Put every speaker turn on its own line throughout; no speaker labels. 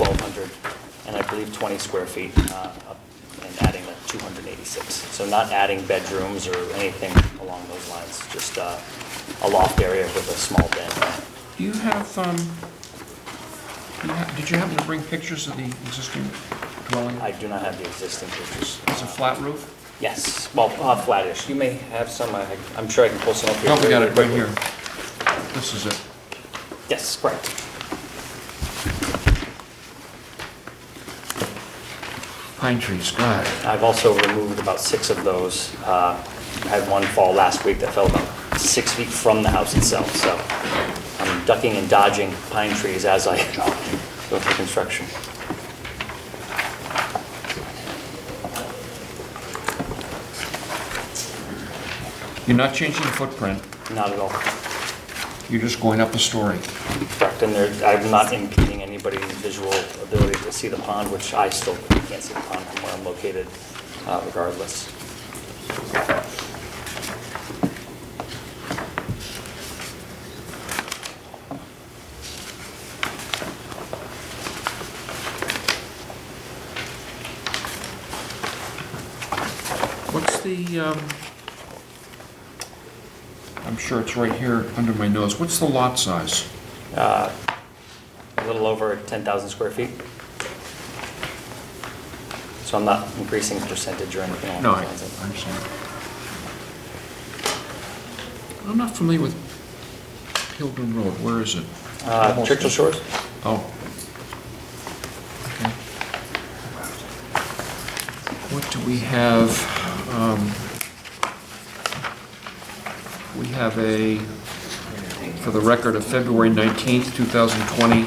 1,200, and I believe 20 square feet, uh, up- and adding the 286. So not adding bedrooms or anything along those lines, just uh, a loft area with a small den.
Do you have, um, you ha- did you happen to bring pictures of the existing dwelling?
I do not have the existing pictures.
It's a flat roof?
Yes, well, uh, flattish. You may have some, I- I'm sure I can pull some up here.
No, we got
very
it right
quickly.
here. This is it.
Yes, correct.
Pine trees, God.
I've also removed about six of those. Uh, I Had one fall last week that fell about six feet from the house itself, so I'm ducking and dodging pine trees as I go through construction.
You're not changing the footprint,
Not at all
you're just going up a story.
correct, and there, I'm not impeding anybody's visual ability to see the pond, which I still can't see the pond from where I'm located uh, regardless.
What's the, um, I'm sure it's right here under my nose, what's the lot size?
a little over 10,000 square feet. So I'm not increasing percentage or anything along
No,
those lines.
I I'm sorry. I'm not familiar with Pilgrim Road, where is it?
Uh, Churchill Shores?
Oh. Okay. What do we have? Um, We have a, for the record of February 19th, 2020,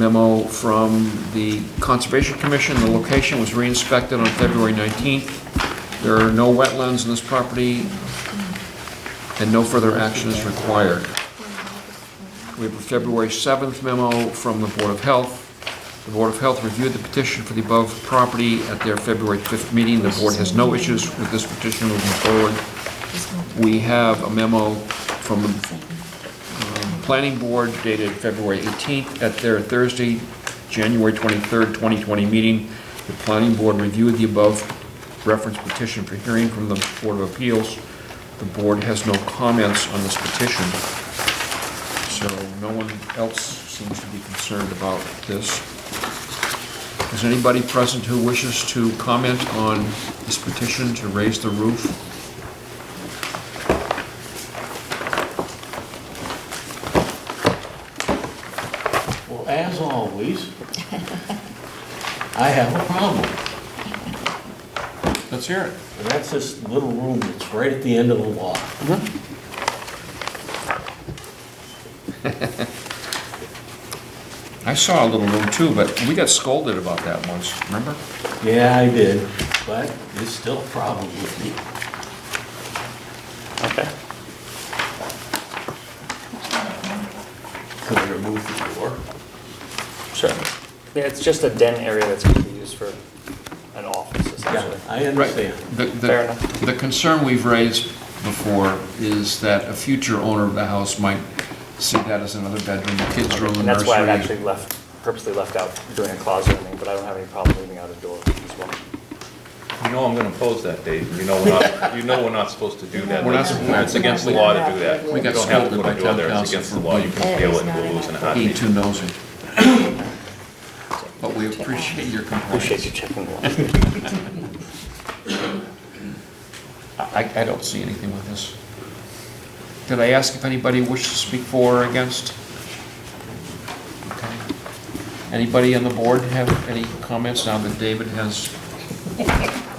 memo from the Conservation Commission. The location was re-inspected on February 19th. There are no wetlands in this property, and no further action is required. We have a February 7th memo from the Board of Health. The Board of Health reviewed the petition for the above property at their February 5th meeting. The board has no issues with this petition moving forward. We have a memo from the um, Planning Board dated February 18th at their Thursday, January 23rd, 2020 meeting. The Planning Board reviewed the above reference petition for hearing from the Board of Appeals. The board has no comments on this petition. So no one else seems to be concerned about this. Is anybody present who wishes to comment on this petition to raise the roof?
Well, as always, I have a problem.
Let's hear it.
And that's this little room that's right at the end of the lot.
I saw a little room too, but we got scolded about that once, remember?
Yeah, I did, but it's still a problem with me.
Okay.
Could I remove the door?
Sure. Yeah, it's just a den area that's going to be used for an office
Yeah,
essentially.
I understand.
The- the-
Fair enough.
The concern we've raised before is that a future owner of the house might see that as another bedroom, a kid's room, a
And that's why I've
nursery.
actually left, purposely left out doing a closet or anything, but I don't have any problem leaving out a door as well.
You know I'm gonna oppose that, Dave. You know we're not, you know we're not supposed to do that.
We're not
It's-
supposed-
It's against the law to do that.
We got
You don't have to
scolded
put a
by
door
town
there. It's
council
against
for E
the law. You can appeal it and we'll lose in a
Being
heartbeat.
too nosy. But we appreciate your compliance.
Appreciate you checking the lot.
I, I don't see anything with this. Did I ask if anybody wished to speak for or against? Okay. Anybody on the board have any comments now that David has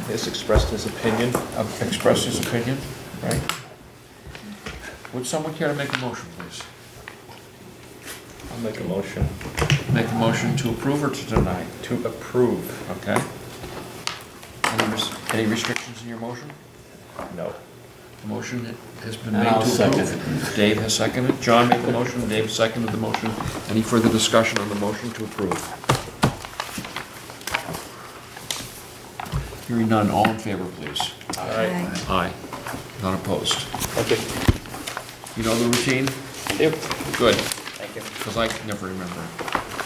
Has expressed his opinion.
uh, expressed his opinion, right? Would someone care to make a motion, please?
I'll make a motion
Make a motion to approve or to deny,
to approve.
okay? Any res- Any restrictions in your motion?
No.
The motion has been made
And
to
I'll
approve.
second
Dave has seconded, John made the motion, Dave seconded the motion. Any further discussion on the motion to approve? Hearing none, all in favor, please.
All right.
Aye. Not opposed.
Thank you.
You know the routine?
Yep.
Good,
Thank you.
because I can never remember. it.